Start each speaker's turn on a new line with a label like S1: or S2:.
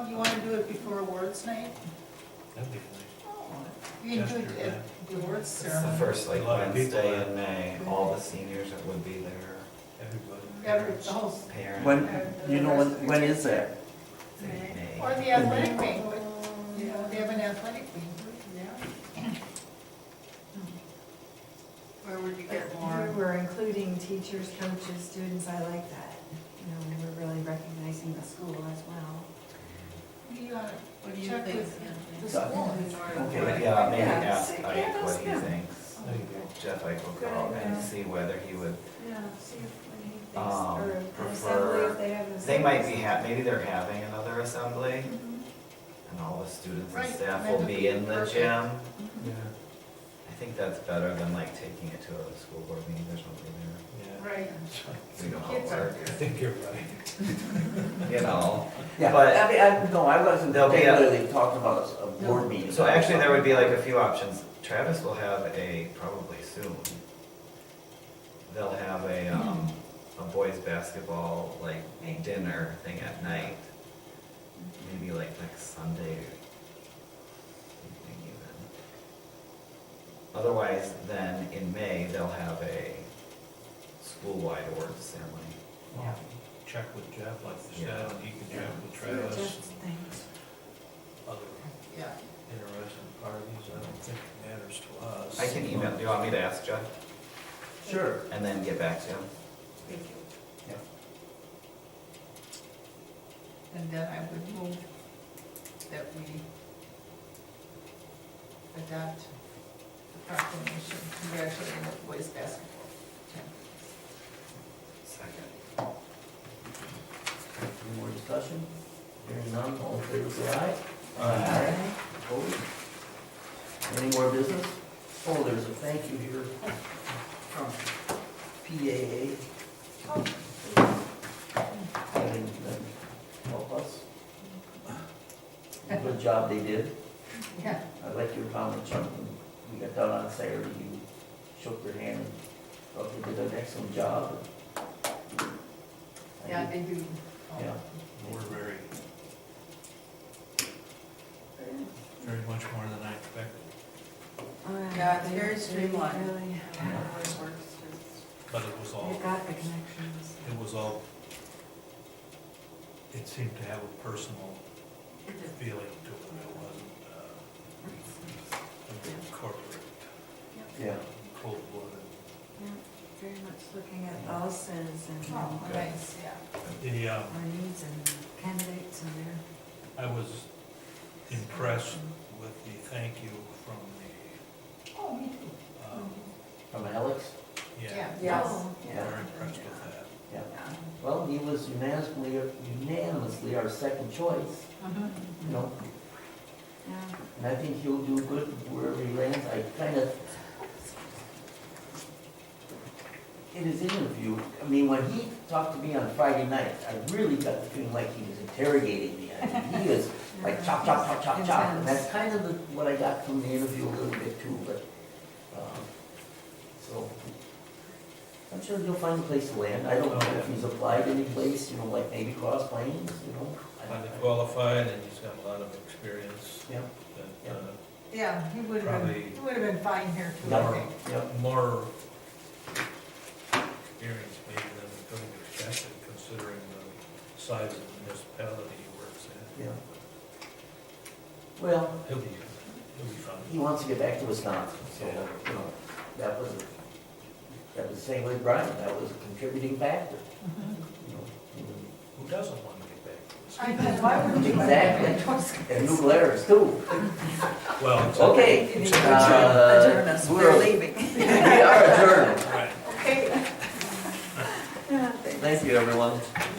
S1: it before awards night?
S2: That'd be fine.
S1: You can do it
S2: Gesture,
S1: at the awards
S3: It's the
S1: ceremony.
S3: first like
S2: A lot of people
S3: Wednesday
S2: are-
S3: in May, all the seniors that would be there,
S2: Everybody.
S1: Every, the whole,
S3: parents.
S4: When, you know, when, when is that?
S3: in May.
S1: or the athletic banquet, you know, they have an athletic banquet.
S5: Where would you
S6: But
S5: get more?
S6: we We're including teachers, coaches, students, I like that. You know, we're really recognizing the school as well.
S1: You ought
S5: What do
S1: to
S5: you
S1: check
S5: think?
S1: with the
S4: Yeah.
S1: school.
S3: Okay, yeah, maybe
S6: Yeah,
S3: ask
S6: yeah,
S3: Ike what
S6: ask
S3: he
S6: him.
S3: thinks.
S2: There you go.
S3: Jeff Ike will
S6: Good
S3: call and
S6: idea.
S3: see whether he would,
S6: Yeah, see if when he thinks,
S3: Um,
S6: or an assembly,
S3: prefer-
S6: if they have an assembly.
S3: they might be, ha- maybe they're having another assembly
S6: Mhm.
S3: and all the students and
S1: Right,
S3: staff
S1: that
S3: will
S1: would
S3: be
S1: be
S3: in the
S1: perfect.
S3: gym.
S2: Yeah,
S3: I think that's better than like taking it to a school board meeting or something there.
S2: yeah.
S1: Right.
S3: We know how it
S1: Kids are
S3: works,
S2: I think you're right.
S3: you know,
S4: Yeah,
S3: But-
S4: I mean, I, no, I wasn't
S3: There'll be a-
S4: particularly talking about a board meeting.
S3: So actually, there would be like a few options. Travis will have a, probably soon, they'll have a, um, a boys' basketball, like, dinner thing at night. Maybe like next Sunday or something even. Otherwise, then in May, they'll have a school-wide awards ceremony.
S2: Well, Check with Jeff, like you said, and he can check with Travis,
S6: Just things.
S2: other
S1: Yeah.
S2: interested parties, I don't think it matters to us.
S3: I can email, do you want me to ask Jeff
S4: Sure.
S3: and then get back to him?
S5: Thank you.
S4: Yeah.
S1: And then I would move that we adopt the proclamation congratulating the boys basketball champions.
S3: Second.
S4: Any more discussion? Hearing none, all in favor, say aye.
S3: Aye.
S4: Opposed? Any more business? Oh, there's a thank you here from PAA. I think that help us. Good job they did.
S1: Yeah.
S4: I like your comment, Chuck, when we got done on Saturday, you shook your hand, and thought they did an excellent job. I
S1: Yeah,
S4: think-
S1: they do.
S4: Yeah.
S2: We're very, very much more than I expected,
S6: Alright,
S5: Yeah, it's
S6: they-
S5: very
S6: they
S5: streamlined.
S6: really-
S2: but it was all,
S6: They've got the connections.
S2: it was all, it seemed to have a personal feeling to it, it wasn't, uh, a corporate,
S4: Yeah.
S2: cold blooded.
S6: Yeah, Very much looking at ulcers and
S1: Oh,
S6: um,
S1: nice, yeah.
S2: The, um,
S6: our needs and candidates and their.
S2: I was impressed with the thank you from
S1: Oh, me too.
S2: the, um,
S4: From Alex?
S2: yeah,
S1: Yes.
S6: Oh,
S2: very impressed with that.
S4: Yeah. Well, he was unanimously, unanimously our second choice,
S1: Uh-huh.
S4: you know,
S6: Yeah.
S4: and I think he'll do good wherever he lands. I kind of, in his interview, I mean, when he talked to me on Friday night, I really got the feeling like he was interrogating me. I mean, He is like chop, chop, chop, chop, chop, and that's kind of the- what I got from the interview a little bit too, but, um, so. I'm sure he'll find a place to land, I don't know if he's applied any place, you know, like maybe Cross Plains, you know? I-
S2: Highly qualified, and he's got a lot of experience
S4: Yeah,
S2: that, uh,
S1: Yeah, he would have been,
S2: Probably-
S1: he would have been fine here too, I
S4: yeah,
S1: think.
S4: yeah,
S2: uh, more experience maybe than we could have expected, considering the size of the municipality he works in.
S4: yeah. Well,
S2: He'll be, he'll be fine.
S4: he wants to get back to Wisconsin, so, you know, that was, that was the same with Brian, that was a contributing factor, you know?
S2: Who doesn't want to get back to this?
S1: I know, why would you?
S4: Exactly. And new letters too.
S2: Well, it's-
S4: Okay. uh,
S5: Adjourn us, we're
S4: we're-
S5: leaving.
S4: We are adjourned.
S2: Right.
S1: Okay.
S4: Thank you, everyone.